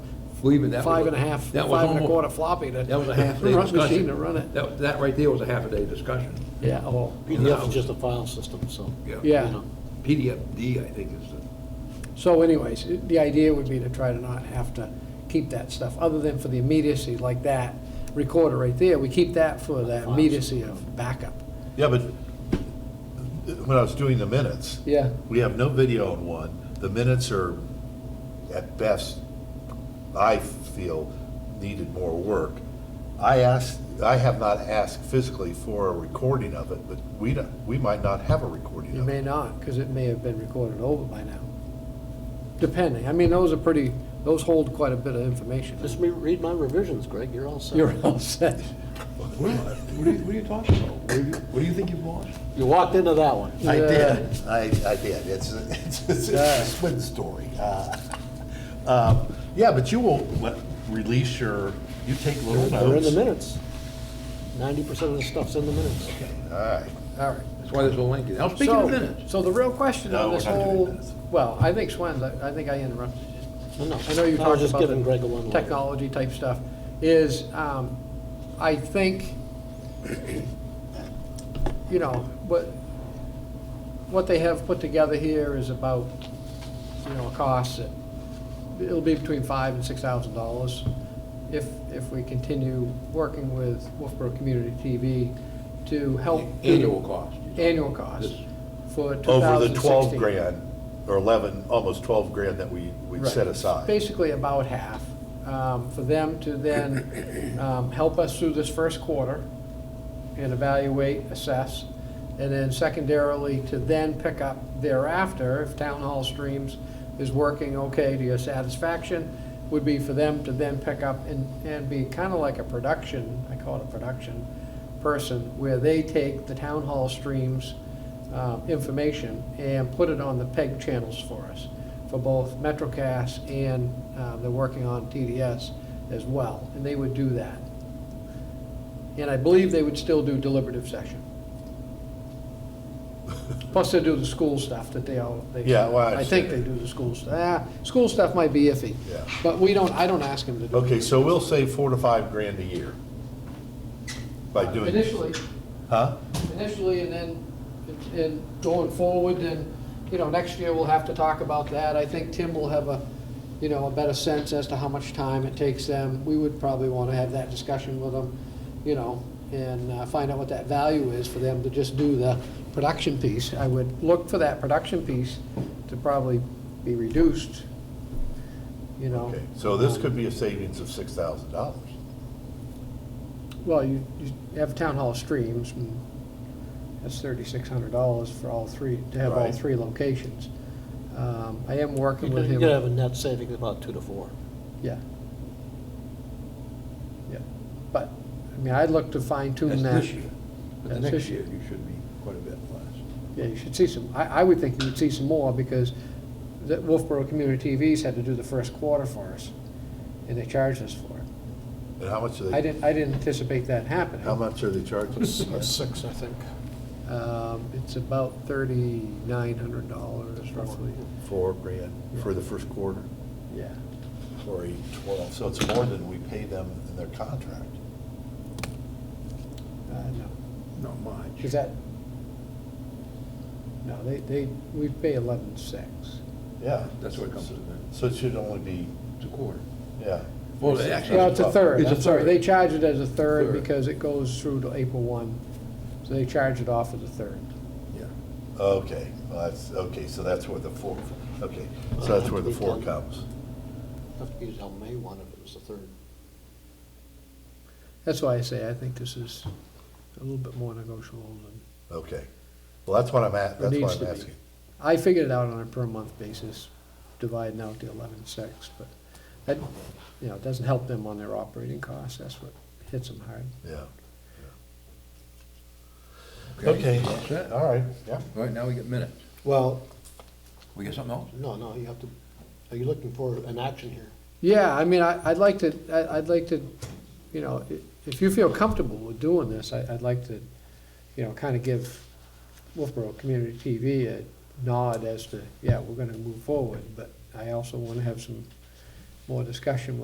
Believe me, that was. five and a half, that was five and a almost- quarter floppy to. That was a half day run- discussion. Machine to run it. That, that right there was a half a day discussion. Yeah, oh, PDF is just a file system, so. Yeah. you know. PDF D, I think is the, so anyways, the idea would be to try to not have to keep that stuff, other than for the immediacy like that, recorder right there, we keep that for that immediacy of backup. Yeah, but when I was doing the minutes, Yeah. we have no video on one. The minutes are, at best, I feel, needed more work. I asked, I have not asked physically for a recording of it, but we don't, we might not have a recording You of may it. not, because it may have been recorded over by now, depending. I mean, those are pretty, those hold quite a bit of information. Just re- read my revisions, Greg, you're all set. You're all set. What what are you, what are you talking about? What do you, what do you think you've lost? You walked into that one. I Yeah. did, I, I did. It's, it's, it's a swin story. Uh, um, Yeah, but you will let- release your, you take little notes. They're in the minutes. Ninety percent of the stuff's in the minutes. All right. All right. that's why this little lengthy. Now, speaking of So- minutes, So the real question No, on we're this not doing whole, minutes. well, I think Swen's, I I think I interrupted you. No, no, I know you I was talked just about giving Greg a one. the technology type stuff, is, um, I think, you know, what, what they have put together here is about, you know, a cost that, it'll be between five and six thousand dollars if, if we continue working with Wolfboro Community TV to help. annual cost. Annual cost for two thousand over sixteen. the 12 grand, or 11, almost 12 grand that we, we Right. set It's aside. Basically about half, um, for them to then um, help us through this first quarter and evaluate, assess, and then secondarily to then pick up thereafter, if Town Hall Streams is working okay to your satisfaction, would be for them to then pick up and, and be kind of like a production, I call it a production person, where they take the Town Hall Streams uh, information and put it on the PEG channels for us, for both MetroCast and uh, they're working on TDS as well, and they would do that. And I believe they would still do deliberative session. Plus, they do the school stuff that they all, they. Yeah, well, I think they understand. do the school stuff. Ah, school stuff might be iffy. Yeah. But we don't, I don't ask them to do. it. Okay, so we'll save four to five grand a year by doing. this. Initially, Huh? initially, and then, and going forward, and, you know, next year we'll have to talk about that. I think Tim will have a, you know, a better sense as to how much time it takes them. We would probably want to have that discussion with them, you know, and uh, find out what that value is for them to just do the production piece. I would look for that production piece to probably be reduced, you know. Um, Okay, so this could be a savings of $6,000. Well, you, you have town hall streams, and that's thirty-six hundred dollars for all three, to have all Right. three locations. Um, I am working You're with gonna have him, a net saving of about two to four. yeah. Yeah, but, I mean, I'd look to fine that's tune that. this year. But the That's next this year, year. you should be quite a bit less. Yeah, you should see some, I, I would think you would see some more, because the Wolfboro Community TV's had to do the first quarter for us, and they charged us for it. And how much are I they, didn't, I didn't anticipate that happening. how much are they charging? Six, I think. Um, it's about thirty-nine hundred dollars roughly, Four grand for the first quarter, yeah. or eight, 12. So it's more than we pay them in their contract. Uh, no, Not much. is that? No, they, they, we pay eleven-six. Yeah. That's what it comes to, then. So it should only be, It's a quarter. yeah. Well, they actually- Well, it's a third, It's a I'm sorry, third. they charge it as a third Third. because it goes through to April one, so they charge it off as a third. Yeah. Okay, well, that's, okay, so that's where the four, okay, so that's where the four comes. Have to use on May one if it was the third. That's why I say I think this is a little bit more negotiable than, Okay. Well, that's what I'm at, It that's needs what to I'm be. asking. I figured it out on a per-month basis, dividing out the eleven-six, but that, you know, it doesn't help them on their operating costs, that's what hits them hard. Yeah. Okay, All set. All all right, yeah. right, now we get minutes. Well. We get something else? No, no, you have to, are you looking for an action here? Yeah, I mean, I, I'd like to, I, I'd like to, you know, i- if you feel comfortable with doing this, I, I'd like to, you know, kind of give Wolfboro Community TV a nod as to, yeah, we're gonna move forward, but I also wanna have some more discussion with